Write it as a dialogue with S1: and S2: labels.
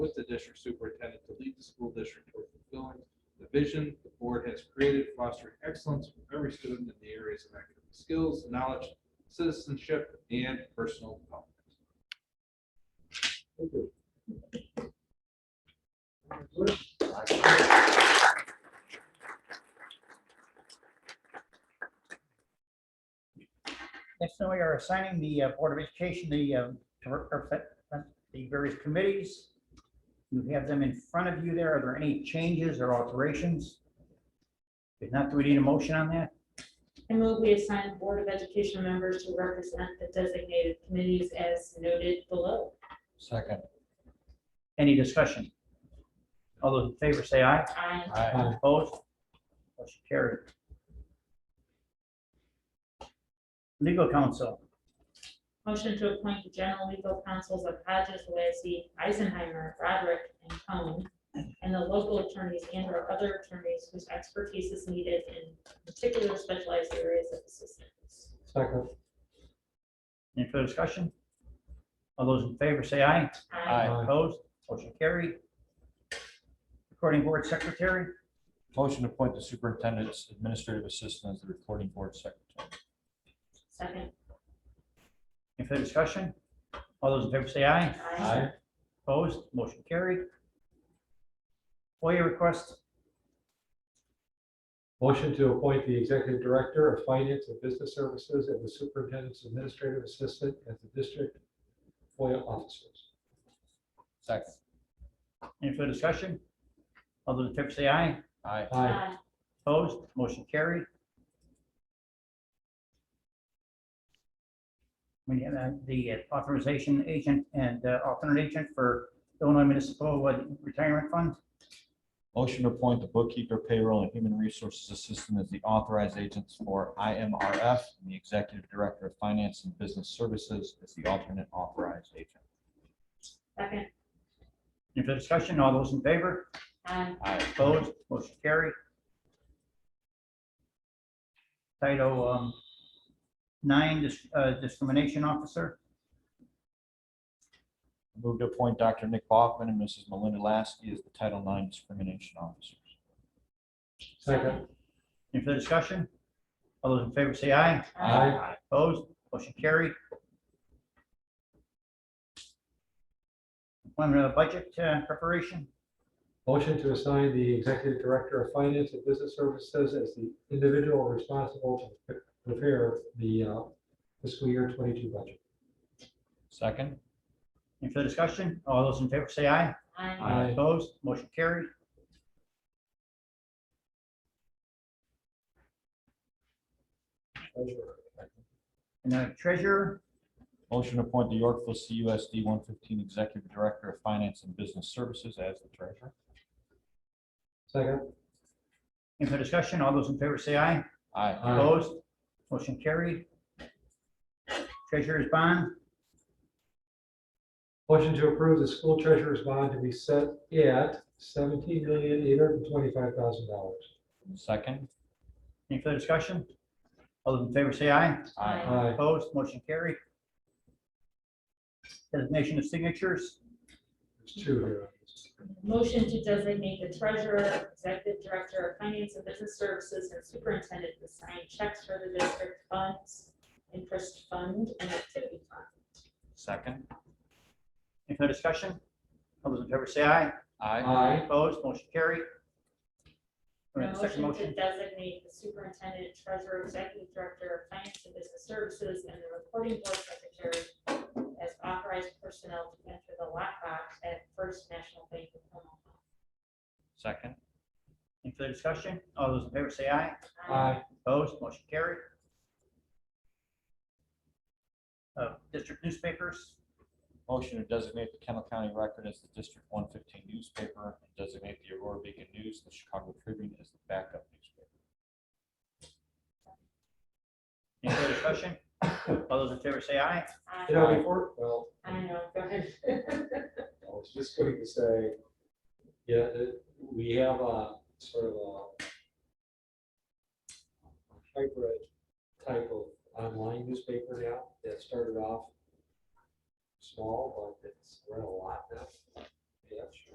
S1: with the district superintendent to lead the school district toward fulfilling the vision the board has created fostering excellence for every student in the areas of academic skills, knowledge, citizenship, and personal development.
S2: Next, now we are assigning the uh, Board of Education, the, uh, to represent uh, the various committees. You have them in front of you there. Are there any changes or alterations? If not, do we need a motion on that?
S3: I move we assign Board of Education members to represent the designated committees as noted below.
S4: Second.
S2: Any discussion? All those in favor say aye.
S3: I,
S4: Aye.
S2: Opposed? Motion carried. Legal counsel,
S3: motion to appoint the general legal counsels of Hodges, Lacy, Eisenheimer, Roderick, and Cohen, and the local attorneys and or other attorneys whose expertise is needed in particular specialized areas of assistance.
S4: Second.
S2: any further discussion? All those in favor say aye.
S3: I,
S4: Aye.
S2: Opposed? Motion carried. Recording Board Secretary,
S4: Motion to appoint the superintendent's administrative assistant as the recording board secretary.
S3: second.
S2: any further discussion? All those in favor say aye.
S3: I,
S2: Opposed? Motion carried. FOIA request,
S5: Motion to appoint the Executive Director of Finance and Business Services and the Superintendent's Administrative Assistant as the District FOIA Officers.
S4: Second.
S2: any further discussion? All those in favor say aye.
S4: Aye.
S5: Aye.
S3: I,
S2: Opposed? Motion carried. We have uh, the authorization agent and uh, alternate agent for Illinois Municipal Retirement Fund.
S4: Motion to appoint the bookkeeper, payroll, and human resources assistant as the authorized agents for IMRF and the executive director of finance and business services as the alternate authorized agent.
S3: second.
S2: Any further discussion? All those in favor?
S3: I,
S4: Aye.
S2: Opposed? Motion carried. Title um, nine, dis- uh, discrimination officer.
S4: Move to appoint Dr. Nick Bachman and Mrs. Melinda Lasky as the Title IX discrimination officers.
S5: Second.
S2: Any further discussion? All those in favor say aye.
S3: I,
S2: Opposed? Motion carried. Appointment of the budget uh, preparation.
S5: Motion to assign the Executive Director of Finance and Business Services as the individual responsible to prepare the uh, fiscal year twenty-two budget.
S4: Second.
S2: Any further discussion? All those in favor say aye.
S3: I,
S5: Aye.
S2: Opposed? Motion carried.
S5: Treasurer.
S2: And the treasurer,
S4: Motion to appoint the Yorkville CUSD one fifteen executive director of finance and business services as the treasurer.
S5: Second.
S2: any further discussion? All those in favor say aye.
S4: Aye.
S2: Opposed? Motion carried. Treasurer's bond,
S5: Motion to approve the school treasurer's bond to be set at seventeen million eight hundred and twenty-five thousand dollars.
S4: Second.
S2: any further discussion? All those in favor say aye.
S3: Aye.
S5: Aye.
S2: Opposed? Motion carried. Designation of signatures,
S5: There's two here.
S3: Motion to designate the treasurer, executive director of finance and business services, and superintendent to sign checks for the district funds, interest fund, and activity fund.
S4: Second.
S2: any further discussion? All those in favor say aye.
S4: Aye.
S5: Aye.
S2: Opposed, motion carried. All right, second
S3: Motion to
S2: motion,
S3: designate the superintendent, treasurer, executive director of finance and business services, and the recording board secretary as authorized personnel to enter the lockbox at First National Bank of Omaha.
S4: Second.
S2: any further discussion? All those in favor say aye.
S5: Aye.
S2: Opposed, motion carried. Uh, District newspapers,
S4: Motion to designate the Kendall County Record as the District one fifteen newspaper and designate the Aurora Beacon News, the Chicago Tribune as the backup newspaper.
S2: any further discussion? All those in favor say aye.
S5: You know, before, well,
S3: I know, go ahead.
S5: I was just going to say, yeah, it- we have a sort of a hybrid type of online newspaper now that started off small, but it's run a lot now. Yes.